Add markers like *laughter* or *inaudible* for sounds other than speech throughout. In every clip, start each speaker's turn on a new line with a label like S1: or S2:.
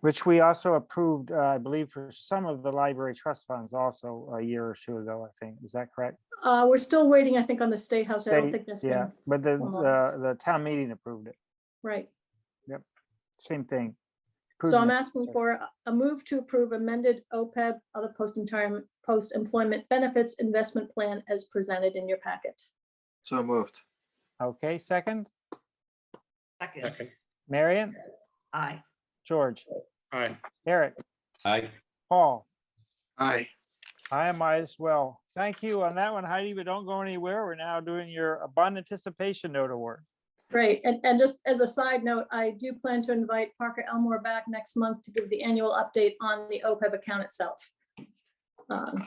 S1: which we also approved, uh, I believe, for some of the library trust funds also a year or two ago, I think. Is that correct?
S2: Uh, we're still waiting, I think, on the State House. I don't
S1: State-
S2: think that's
S1: Yeah,
S2: been,
S1: but the,
S2: formalized.
S1: the, the town meeting approved it.
S2: right.
S1: Same thing.
S2: So I'm
S1: Improvement.
S2: asking for a- a move to approve amended OPEB, other post-retirement, post-employment benefits investment plan as presented in your packet.
S3: So moved.
S1: Okay, second,
S4: Second,
S1: Marion,
S4: aye.
S1: George,
S5: Aye.
S1: Eric,
S5: Aye.
S1: Paul.
S3: Aye.
S1: I might as well. Thank you on that one, Heidi, but don't go anywhere. We're now doing your abundant anticipation note award.
S2: Great. And, and just as a side note, I do plan to invite Parker Elmore back next month to give the annual update on the OPEB account itself. Um,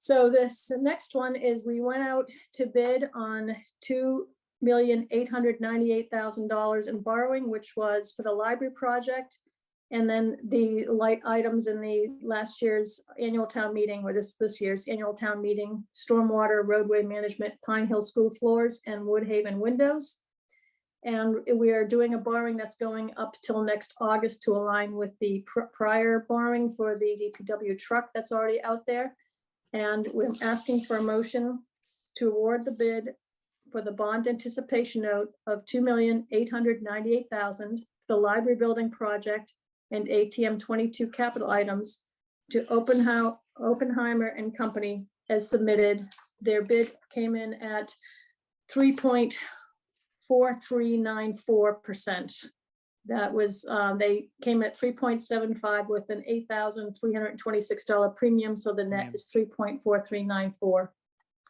S2: So this next one is we went out to bid on two million eight hundred ninety-eight thousand dollars in borrowing, which was for the library project. And then the light items in the last year's annual town meeting, or this, this year's annual town meeting, stormwater, roadway management, Pine Hill School floors, and Woodhaven windows. And we are doing a borrowing that's going up till next August to align with the pr- prior borrowing for the DPW truck that's already out there. And we're asking for a motion to award the bid for the bond anticipation note of two million eight hundred ninety-eight thousand, the library building project and ATM twenty-two capital items to Oppenhau- Oppenheimer and Company as submitted. Their bid came in at three point four, three, nine, four percent. That was, uh, they came at three point seven five with an eight thousand three hundred and twenty-six dollar premium, so the net
S1: Premium.
S2: is three point four, three, nine, four.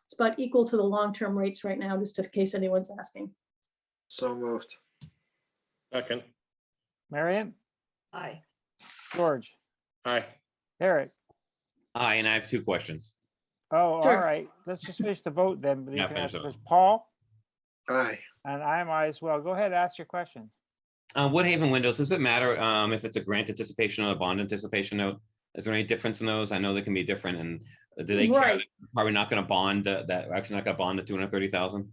S2: It's about equal to the long-term rates right now, just in case anyone's asking.
S3: So moved.
S5: Second,
S1: Marion,
S4: Aye.
S1: George,
S5: aye.
S1: Eric.
S6: Aye, and I have two questions.
S1: Oh, all
S2: Sure.
S1: right. Let's just finish the vote then. but you
S6: Yeah,
S1: can
S6: finish
S1: ask
S6: it.
S1: first. Paul,
S3: Aye.
S1: and I might as well. Go ahead, ask your questions.
S6: Uh, Woodhaven windows, does it matter um, if it's a grant anticipation or a bond anticipation note? Is there any difference in those? I know they can be different and do they, care
S2: Right.
S6: that- are we not going to bond the- that, we're actually not going to bond the 230,000?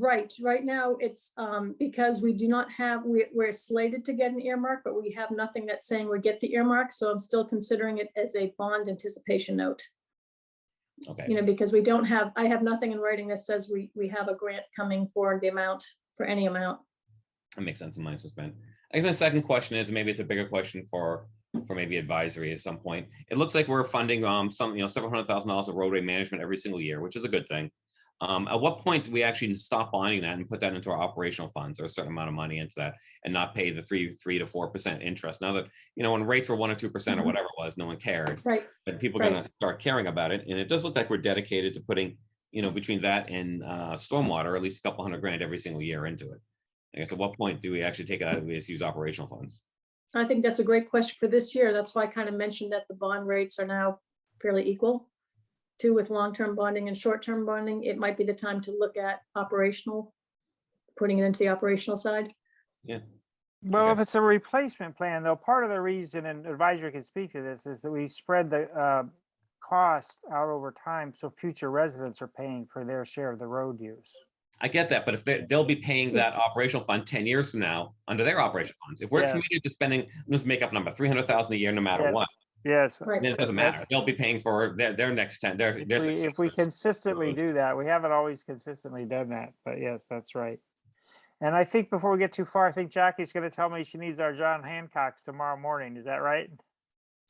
S2: Right, right now, it's um because we do not have, we we're slated to get an earmark, but we have nothing that's saying we get the earmark, so I'm still considering it as a bond anticipation note.
S6: Okay,
S2: You know, because we don't have, I have nothing in writing that says we we have a grant coming for the amount, for any amount.
S6: that makes sense in my suspense. I guess my second question is, maybe it's a bigger question for, for maybe advisory at some point. It looks like we're funding um, some, you know, several hundred thousand dollars of roadway management every single year, which is a good thing. Um, At what point do we actually stop bonding that and put that into our operational funds or a certain amount of money into that? and not pay the three, three to four percent interest. Now that, you know, when rates were one or two percent or
S2: Mhm.
S6: whatever it was, no one cared.
S2: Right,
S6: But people
S2: Right.
S6: gonna start caring about it. And it does look like we're dedicated to putting, you know, between that and uh stormwater, at least a couple hundred grand every single year into it. I guess at what point do we actually take it out? Do we just use operational funds?
S2: I think that's a great question for this year. That's why I kind of mentioned that the bond rates are now fairly equal. Too, with long-term bonding and short-term bonding, it might be the time to look at operational, putting it into the operational side.
S1: Well,
S6: Okay.
S1: if it's a replacement plan, though, part of the reason, and advisory can speak to this, is that we spread the uh, cost out over time, so future residents are paying for their share of the road use.
S6: I get that, but if they, they'll be paying
S1: Hmm.
S6: that operational fund ten years from now under their operational funds, if we're
S1: Yes.
S6: committed to spending, let's make up a number, three hundred thousand a year, no matter
S1: Yes.
S6: what,
S1: Yes.
S2: Right.
S6: then it doesn't matter.
S1: That's-
S6: They'll be paying for their, their next ten, their,
S1: If
S6: their.
S1: we- if we
S6: successors.
S1: consistently do that, we haven't always consistently done that, but yes, that's right. And I think before we get too far, I think Jackie's going to tell me she needs our John Hancock's tomorrow morning. Is that right?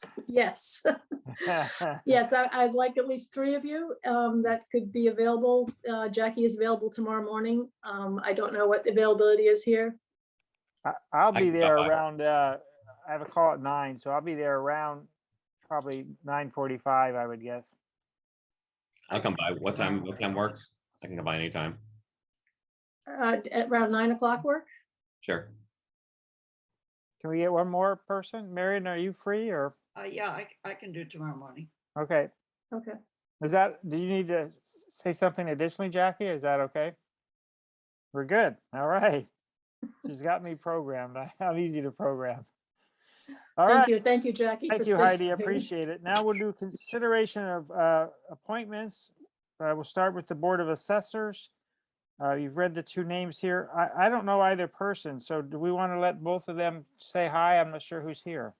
S1: *laughs*
S2: Yes. *laughs* Yes, I, I'd like at least three of you um, that could be available. Uh, Jackie is available tomorrow morning. Um, I don't know what the availability is here.
S1: I- I'll
S6: I
S1: be
S6: can stop
S1: there
S6: by.
S1: around, uh, I have a call at nine, so I'll be there around probably nine forty-five, I would guess.
S6: I'll come by. What time, what time works? I can come by anytime.
S2: Uh, At around nine o'clock work?
S6: Sure.
S1: Can we get one more person? Marion, are you free or,
S4: Uh, yeah, I, I can do tomorrow morning.
S1: okay,
S2: Okay.
S1: is that, do you need to s- say something additionally, Jackie? Is that okay? We're good, all
S2: *laughs*
S1: right. She's got me programmed. *laughs* I- I'm easy to program. All right.
S2: Thank you, thank you, Jackie. for
S1: Thank you,
S2: staying
S1: Heidi. I
S2: here.
S1: Appreciate it. Now we'll do consideration of uh, appointments. Uh, We'll start with the Board of Assessors. Uh, you've read the two names here. I, I don't know either person, so do we want to let both of them say hi? I'm not sure who's here.